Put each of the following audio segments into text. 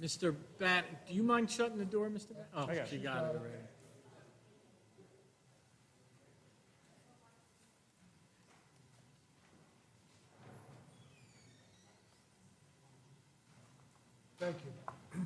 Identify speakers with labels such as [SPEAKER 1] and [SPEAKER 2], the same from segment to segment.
[SPEAKER 1] Mr. Bat, do you mind shutting the door, Mr. Bat? Oh,
[SPEAKER 2] got
[SPEAKER 1] she got it already.
[SPEAKER 3] Thank you.
[SPEAKER 1] All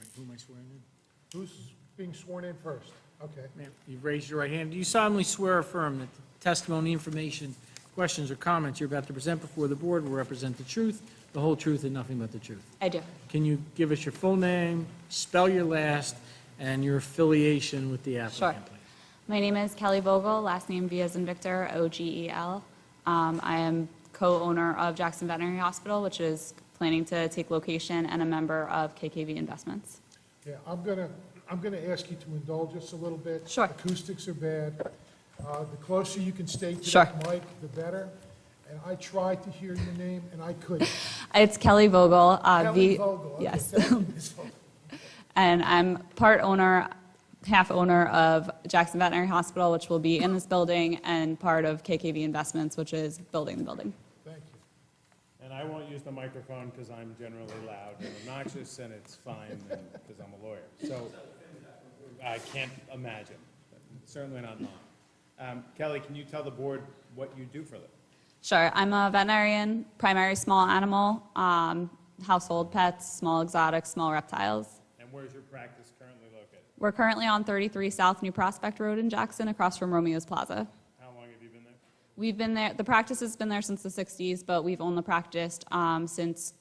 [SPEAKER 1] right, who am I swearing in?
[SPEAKER 3] Who's being sworn in first? Okay.
[SPEAKER 1] Ma'am, you raise your right hand. Do you solemnly swear or affirm that the testimony, information, questions, or comments you're about to present before the board will represent the truth, the whole truth, and nothing but the truth?
[SPEAKER 4] I do.
[SPEAKER 1] Can you give us your full name, spell your last, and your affiliation with the applicant?
[SPEAKER 4] Sure.
[SPEAKER 1] please?
[SPEAKER 4] My name is Kelly Vogel, last name V as in Victor, O-G-E-L. Um, I am co-owner of Jackson Veterinary Hospital, which is planning to take location, and a member of KKV Investments.
[SPEAKER 3] Yeah, I'm gonna, I'm gonna ask you to indulge us a little bit.
[SPEAKER 4] Sure.
[SPEAKER 3] Acoustics are bad. Uh, The closer you can stay to
[SPEAKER 4] Sure.
[SPEAKER 3] that mic, the better. And I tried to hear your name, and I couldn't.
[SPEAKER 4] It's Kelly Vogel. uh,
[SPEAKER 3] Kelly
[SPEAKER 4] V-
[SPEAKER 3] Vogel. okay,
[SPEAKER 4] Yes.
[SPEAKER 3] thank you, Ms. Vogel.
[SPEAKER 4] And I'm part owner, half owner of Jackson Veterinary Hospital, which will be in this building, and part of KKV Investments, which is building the building.
[SPEAKER 3] Thank you.
[SPEAKER 2] And I won't use the microphone because I'm generally loud and obnoxious, and it's fine because I'm a lawyer. So I can't imagine, certainly not mine. Um, Kelly, can you tell the board what you do for a living?
[SPEAKER 4] Sure, I'm a veterinarian, primary small animal, um, household pets, small exotics, small reptiles.
[SPEAKER 2] And where's your practice currently located?
[SPEAKER 4] We're currently on 33 South New Prospect Road in Jackson, across from Romeo's Plaza.
[SPEAKER 2] How long have you been there?
[SPEAKER 4] We've been there, the practice has been there since the 60s, but we've owned the practice um, since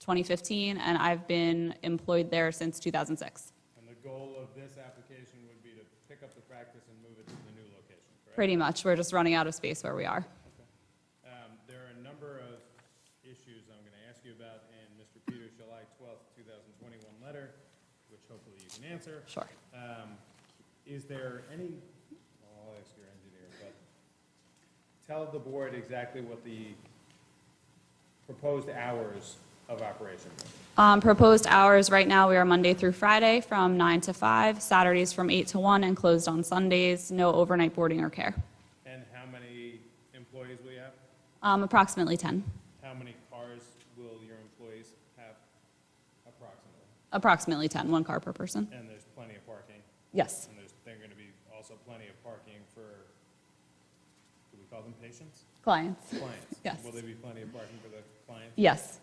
[SPEAKER 4] 2015, and I've been employed there since 2006.
[SPEAKER 2] And the goal of this application would be to pick up the practice and move it to the new location, correct?
[SPEAKER 4] Pretty much, we're just running out of space where we are.
[SPEAKER 2] Um, There are a number of issues I'm going to ask you about in Mr. Peters' July 12th, 2021 letter, which hopefully you can answer.
[SPEAKER 4] Sure.
[SPEAKER 2] Um, Is there any, well, I'll ask your engineer, but tell the board exactly what the proposed hours of operation are.
[SPEAKER 4] Um, Proposed hours, right now, we are Monday through Friday from 9 to 5, Saturdays from 8 to 1, and closed on Sundays, no overnight boarding or care.
[SPEAKER 2] and how many employees will you have?
[SPEAKER 4] Um, Approximately 10,
[SPEAKER 2] How many cars will your employees have approximately?
[SPEAKER 4] approximately 10, one car per person.
[SPEAKER 2] And there's plenty of parking.
[SPEAKER 4] Yes,
[SPEAKER 2] And there's, they're gonna be also plenty of parking for, do we call them patients?
[SPEAKER 4] clients.
[SPEAKER 2] Clients.
[SPEAKER 4] Yes.
[SPEAKER 2] Will there be plenty of parking for the clients?
[SPEAKER 4] Yes,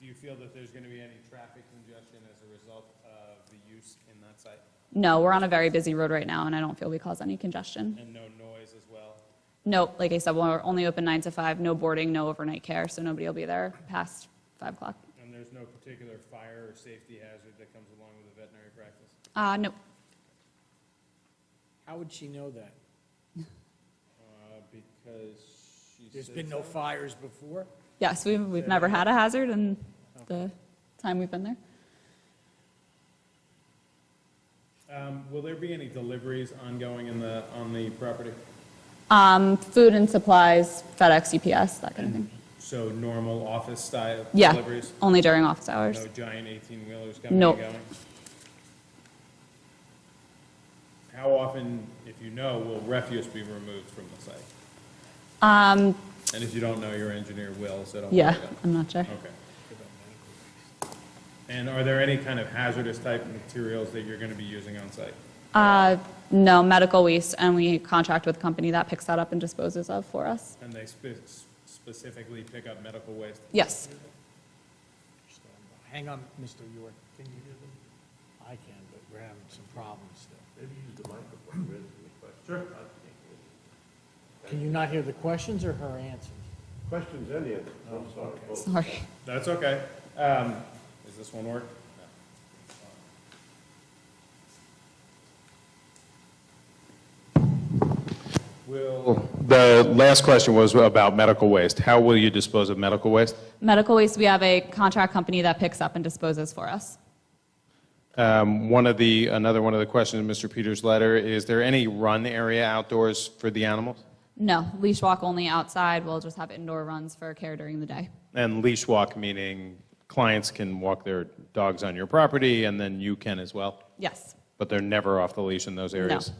[SPEAKER 2] Do you feel that there's gonna be any traffic congestion as a result of the use in that site?
[SPEAKER 4] no, we're on a very busy road right now, and I don't feel we cause any congestion.
[SPEAKER 2] And no noise as well?
[SPEAKER 4] No, like I said, we're only open 9 to 5, no boarding, no overnight care, so nobody will be there past 5 o'clock.
[SPEAKER 2] And there's no particular fire or safety hazard that comes along with a veterinary practice?
[SPEAKER 4] Uh, No,
[SPEAKER 1] How would she know that?
[SPEAKER 2] Uh, because she said.
[SPEAKER 1] There's been no fires before?
[SPEAKER 4] yes, we've we've never had a hazard in the time we've been there.
[SPEAKER 2] Um, will there be any deliveries ongoing in the, on the property?
[SPEAKER 4] Um, Food and supplies, FedEx, UPS, that kind of thing.
[SPEAKER 2] So normal office style
[SPEAKER 4] Yeah,
[SPEAKER 2] deliveries?
[SPEAKER 4] only during office hours.
[SPEAKER 2] No giant eighteen-wheelers coming
[SPEAKER 4] No.
[SPEAKER 2] and going? How often, if you know, will refuse be removed from the site?
[SPEAKER 4] Um,
[SPEAKER 2] And if you don't know, your engineer will, so don't worry
[SPEAKER 4] Yeah,
[SPEAKER 2] about it.
[SPEAKER 4] I'm not sure.
[SPEAKER 2] Okay. And are there any kind of hazardous type materials that you're gonna be using on site?
[SPEAKER 4] Uh, No, medical waste, and we contract with a company that picks that up and disposes of for us.
[SPEAKER 2] And they spe- specifically pick up medical waste?
[SPEAKER 4] Yes.
[SPEAKER 1] Hang on, Mr. York, can you hear them? I can, but we're having some problems still. Maybe use the microphone, Sure. Can you not hear the questions or her answers?
[SPEAKER 5] Questions and answers, I'm sorry. folks.
[SPEAKER 4] Sorry.
[SPEAKER 2] That's okay. Um, does this one work? Will, the last question was about medical waste. How will you dispose of medical waste?
[SPEAKER 4] Medical waste, we have a contract company that picks up and disposes for us.
[SPEAKER 2] Um, one of the, another one of the questions in Mr. Peters' letter, is there any run area outdoors for the animals?
[SPEAKER 4] No, leash walk only outside. We'll just have indoor runs for care during the day.
[SPEAKER 2] And leash walk, meaning clients can walk their dogs on your property and then you can as well?
[SPEAKER 4] Yes.
[SPEAKER 2] But they're never off the leash in those areas?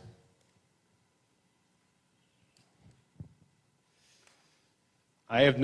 [SPEAKER 2] I have